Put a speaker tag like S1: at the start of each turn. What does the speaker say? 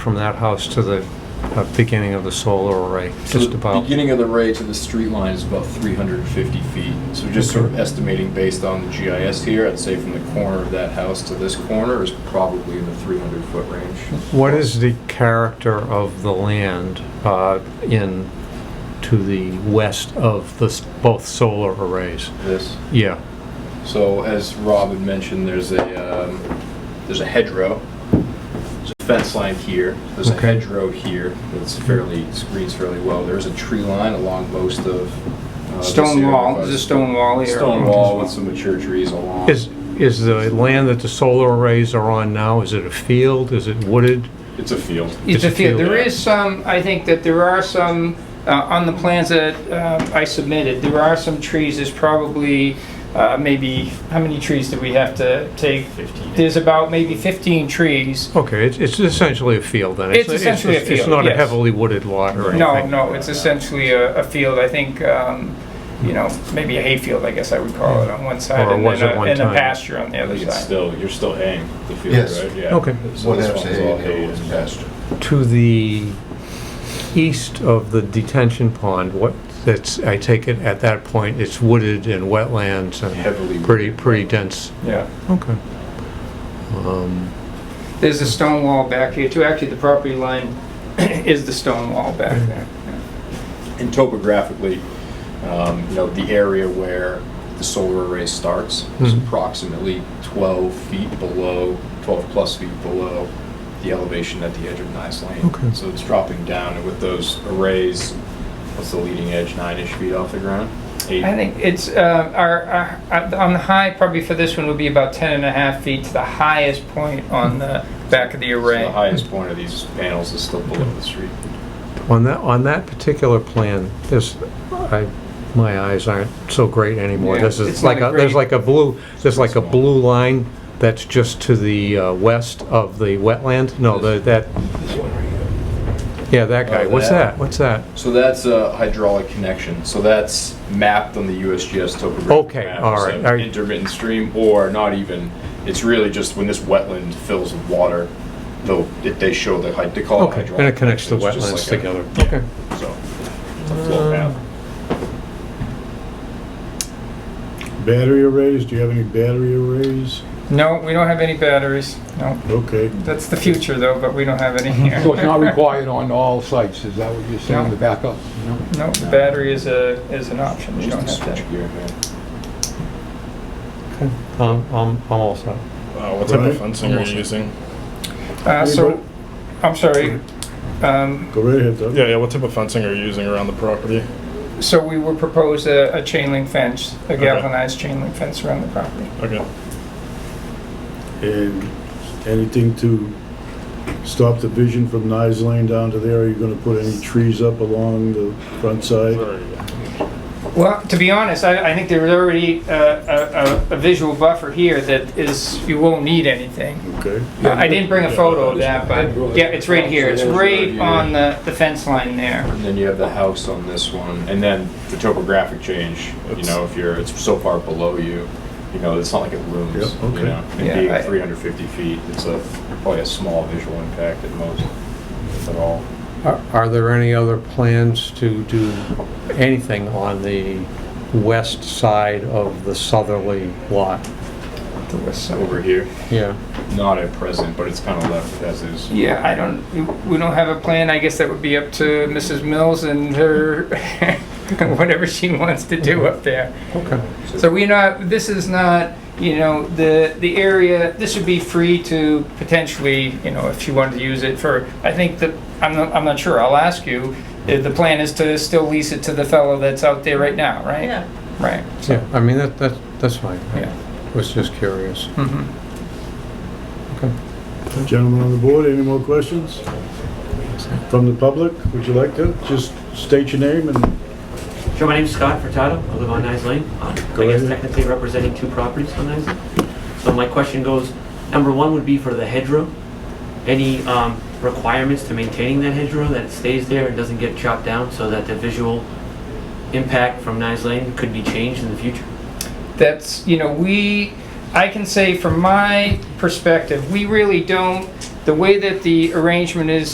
S1: from that house to the uh, beginning of the solar array,
S2: So
S1: just
S2: the
S1: about.
S2: Beginning of the ray to the street line is about 350 feet. So just sort of estimating based on the GIS here, I'd say from the corner of that house to this corner is probably in the 300 foot range.
S1: What is the character of the land uh, in, to the west of the, s- both solar arrays?
S2: This.
S1: Yeah,
S2: So as Rob had mentioned, there's a, um, there's a hedgerow. There's a fence line here. There's a
S1: Okay.
S2: hedgerow here that's fairly, screens fairly well. There's a tree line along most of. uh, this
S3: Stone
S2: area.
S3: wall, there's a stone wall here.
S2: Stone wall with some mature trees along.
S1: is, is the land that the solar arrays are on now, is it a field, is it wooded?
S2: It's a field.
S3: It's a
S1: It's a field.
S3: field, there is some, I think that there are some, uh, on the plans that uh, I submitted, there are some trees, there's probably uh, maybe, how many trees do we have to take? There's about maybe 15 trees.
S1: Okay, it's, it's essentially a field then.
S3: It's essentially a
S1: It's
S3: field,
S1: not a
S3: yes.
S1: heavily wooded lot or anything.
S3: No, no, it's essentially a a field, I think, um, you know, maybe a hayfield, I guess I would call it, on one side.
S1: Or
S3: and
S1: was
S3: then
S1: at
S3: a-
S1: one
S3: And
S1: time.
S3: a pasture on the
S2: I
S3: other
S2: think it's
S3: side.
S2: still, you're still haying the field,
S4: Yes.
S2: right? Yeah.
S1: Okay.
S2: So this
S4: Whatever's
S2: one's all hay.
S4: hay is pasture.
S1: To the east of the detention pond, what, that's, I take it at that point, it's wooded and wetlands and
S2: Heavily.
S1: pretty, pretty dense.
S3: Yeah.
S1: Okay. Um,
S3: There's a stone wall back here too, actually, the property line is the stone wall back there.
S2: And topographically, um, you know, the area where the solar array starts is
S1: Mhm.
S2: approximately 12 feet below, 12 plus feet below the elevation at the edge of Nice Lane.
S1: Okay.
S2: So it's dropping down, and with those arrays, what's the leading edge, nine-ish feet off the ground? Eight?
S3: I think it's, uh, our, our- uh, on the high, probably for this one, would be about 10 and a half feet to the highest point on the back of the
S2: So The
S3: array.
S2: highest point of these panels is still below the street.
S1: On that, on that particular plan, there's, I, my eyes aren't so great anymore.
S3: Yeah,
S1: This is
S3: it's not
S1: like,
S3: a
S1: a there's like
S3: great-
S1: a blue, there's like a
S2: Small.
S1: blue line that's just to the uh, west of the wetland. No, the- that,
S2: This one right here.
S1: yeah, that guy.
S2: Oh,
S1: What's
S2: that.
S1: that? What's that?
S2: So that's a hydraulic connection. So that's mapped on the USGS topographic
S1: Okay,
S2: map.
S1: all
S2: as
S1: right,
S2: an
S1: all right.
S2: intermittent stream, or not even. It's really just when this wetland fills with water, they'll it, they show the hy- they call
S1: Okay,
S2: it hydraulic.
S1: and it connects the
S2: connection. It's
S1: wetlands
S2: just like
S1: together.
S2: A, yeah,
S1: Okay.
S2: So it's a flow path.
S5: Battery arrays, do you have any battery arrays?
S3: No, we don't have any batteries, no.
S5: Okay.
S3: That's the future though, but we don't have any here.
S6: So it's not required on all sites, is that what you're saying, the backup? No.
S3: No, the battery is a, is an option, we don't
S2: Just
S3: have
S2: switch
S3: that.
S2: gear, man.
S1: Um, I'm, I'm all set.
S7: Uh, what type
S5: Right.
S7: of fencing are you using?
S3: Uh, so, I'm sorry, um,
S5: Go right ahead, Doug.
S7: Yeah, yeah. What type of fencing are you using around the property?
S3: So we would propose a, a chain link fence, a
S7: Okay.
S3: galvanized chain link fence around the property.
S7: Okay.
S5: And anything to stop the vision from Nice Lane down to there? Are you gonna put any trees up along the front side?
S3: Well, to be honest, I, I think there is already uh, a, a, a visual buffer here that is, you won't need anything.
S5: Okay.
S3: I didn't bring a photo of that, but, yeah, it's right here, it's right on the, the fence line there.
S2: And then you have the house on this one, and then the topographic change. you
S7: It's-
S2: know, if you're it's so far below you, you know, it's not like it looms.
S5: Yep, okay.
S2: You know, and
S3: Yeah,
S2: being
S3: I-
S2: 350 feet, it's a probably a small visual impact at most, if at all.
S1: Are are there any other plans to do anything on the west side of the southerly lot?
S3: The west side.
S2: over here.
S1: Yeah.
S2: Not at present, but it's kind of left as is.
S3: Yeah, I don't, we don't have a plan, I guess that would be up to Mrs. Mills and her, whatever she wants to do up there.
S1: Okay.
S3: So we're not, this is not, you know, the, the area, this would be free to potentially, you know, if you wanted to use it for, I think that, I'm not, I'm not sure, I'll ask you. The the plan is to still lease it to the fellow that's out there right now, right?
S8: Yeah.
S3: Right,
S1: Yeah, I mean, that, that, that's fine.
S3: yeah.
S1: I was just curious.
S3: Mhm.
S1: Mm-hmm.
S5: Gentlemen on the board, any more questions? From the public, would you like to? Just state your name and
S9: Sure, my name's Scott Furtado. I live on Nice Lane. Uh,
S5: Go
S9: I guess
S5: ahead.
S9: technically representing two properties on Nice Lane. So my question goes, number one would be for the hedgerow. Any um, requirements to maintaining that hedgerow, that it stays there and doesn't get chopped down so that the visual impact from Nice Lane could be changed in the future?
S3: that's, you know, we, I can say from my perspective, we really don't, the way that the arrangement is